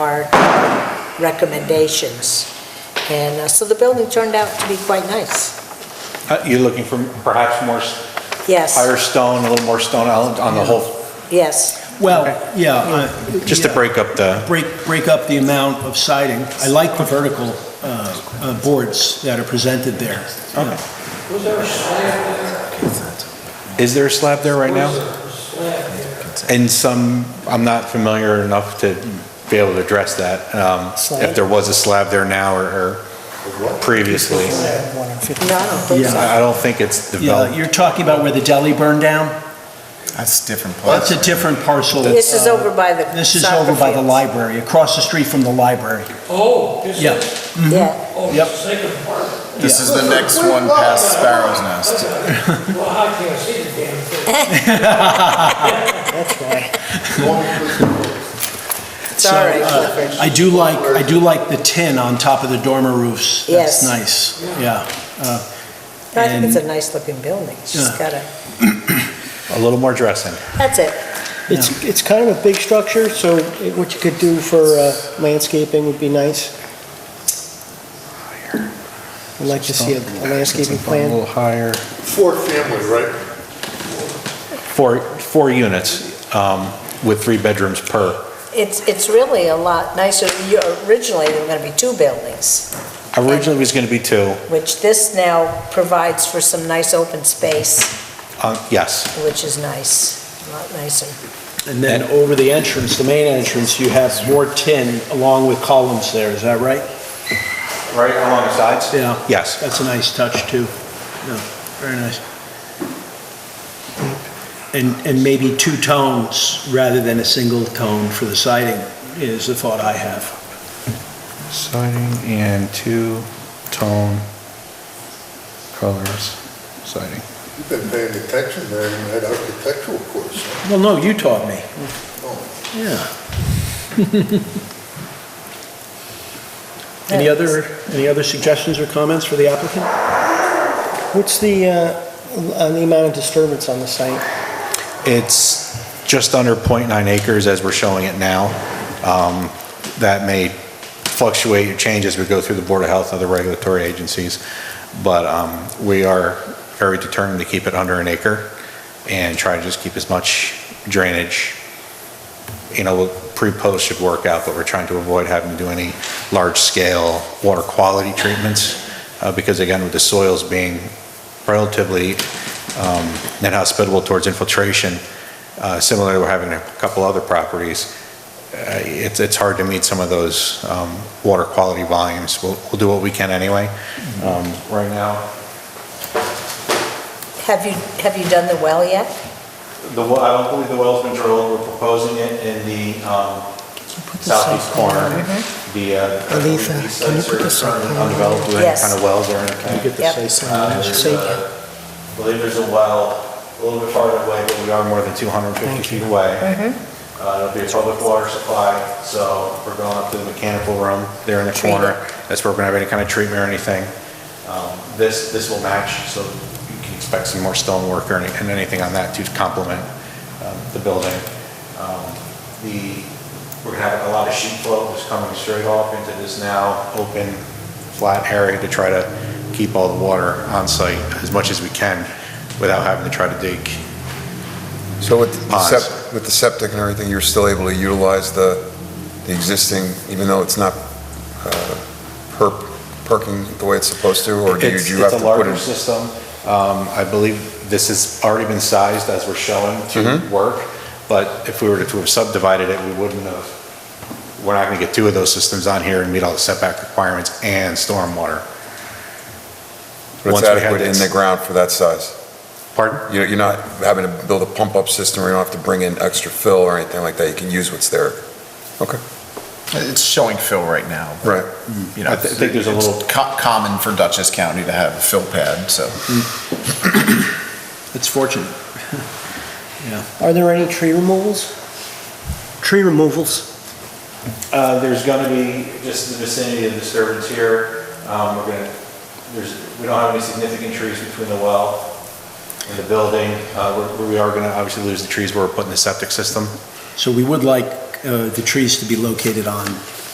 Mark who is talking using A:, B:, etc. A: our recommendations. And uh, so the building turned out to be quite nice.
B: Uh, You're looking for perhaps more, s-
A: Yes,
B: higher stone, a little more stone on on the whole,
A: yes,
C: Well, yeah. uh,
B: just to
C: yeah,
B: break up the,
C: Break, break up the amount of siding. I like the vertical uh, uh, boards that are presented there.
B: is there a slab there right now? And some, I'm not familiar enough to be able to address that. um,
A: Slab?
B: If there was a slab there now or- or previously.
A: no, I don't think so.
B: I I don't think it's
C: Yeah,
B: developed.
C: you're talking about where the deli burned down?
D: That's different place.
C: That's a different parcel.
A: This is over by the
C: uh, This is
A: soccer
C: over by the
A: fields.
C: library, across the street from the library.
E: Oh, this
C: Yeah.
E: is,
A: Yeah,
E: oh,
C: Yep.
E: it's the second part.
D: This is the next one past Sparrow's Nest.
E: Well, I can't see the damn thing.
A: it's all right,
C: uh,
A: Clifford.
C: I do like, I do like the tin on top of the dormer roofs.
A: Yes.
C: That's nice, yeah. Uh,
A: No, I think it's a
C: and-
A: nice looking building, it's just
C: Yeah.
A: gotta,
B: A little more dressing.
A: that's it.
F: It's, it's kind of a big structure, so it- what you could do for uh, landscaping would be nice. I'd like to see a a landscaping
B: A
F: plan.
B: little higher.
G: Four family, right?
B: Four, four units um, with three bedrooms per.
A: It's, it's really a lot nicer, You- originally there were gonna be two buildings,
B: Originally, it was going to be two.
A: which this now provides for some nice open space,
B: um, Yes,
A: which is nice, a lot nicer.
C: And then over the entrance, the main entrance, you have more tin along with columns there, is that right?
B: right along the sides?
C: Yeah.
B: Yes.
C: That's a nice touch, too. No, very nice. And, and maybe two tones rather than a single tone for the siding is the thought I have.
B: Siding and two-tone colors siding.
G: You've been paying attention there in that architectural course.
C: Well, no, you taught me.
G: Oh,
C: Yeah. Any other, any other suggestions or comments for the applicant?
F: What's the, uh, on the amount of disturbance on the site?
B: It's just under .9 acres as we're showing it now. Um, That may fluctuate or change as we go through the Board of Health and other regulatory agencies, but um, we are very determined to keep it under an acre and try to just keep as much drainage. You know, pre-post should work out, but we're trying to avoid having to do any large-scale water quality treatments uh, because again, with the soils being relatively um, not hospitable towards infiltration. Uh, Similarly, we're having a couple other properties. Uh, It's, it's hard to meet some of those um, water quality volumes. We'll, we'll do what we can anyway. Um, Right now,
A: Have you, have you done the well yet?
B: the, well- I don't believe the well's been drilled. We're proposing it in the um, southeast corner. The, uh, the
F: Alisa,
B: east
F: can you
B: sides
F: put
B: are
F: the site
B: currently
F: plan?
B: undeveloped with any
A: Yes.
B: kind of wells or anything.
A: Yep.
B: Uh, there's a- Uh, I believe there's a well a little bit farther away, but we are more than 250 feet away. Uh, It'll be a public water supply, so we're going up to the mechanical room there in the
A: Treat
B: corner. That's where we're going to have any kind of treatment or anything. Um, This, this will match, so you can expect some more stone work or any- and anything on that to complement um, the building. Um, The, we're going to have a lot of sheet flow just coming straight off into this now open, flat area to try to keep all the water on site as much as we can without having to try to dig.
H: So with the
B: Ponds.
H: sep- with the septic and everything, you're still able to utilize the, the existing, even though it's not uh, per- perking the way it's supposed to, or do you
B: It's
H: do you have
B: it's
H: to
B: a
H: put
B: larger
H: it?
B: system. Um, I believe this has already been sized as we're showing to
H: Mm-hmm.
B: work, but if we were to have subdivided it, we wouldn't have, we're not going to get two of those systems on here and meet all the setback requirements and stormwater.
H: But
B: once we
H: it's
B: had
H: adequate in
B: this-
H: the ground for that size?
B: Pardon?
H: You're you're not having to build a pump-up system, or you don't have to bring in extra fill or anything like that, you can use what's there?
D: It's showing fill right now. but,
H: Right.
D: You know,
B: I th- I think there's a
D: it's
B: little-
D: co- Common for Dutchess County to have a fill pad, so.
C: It's fortunate.
F: Are there any tree removals? Tree removals?
B: Uh, There's going to be, just in the vicinity of the disturbance here, um, we're going to, there's, we don't have any significant trees between the well and the building. Uh, we're- We are going to obviously lose the trees where we're putting the septic system.
C: So we would like uh, the trees to be located on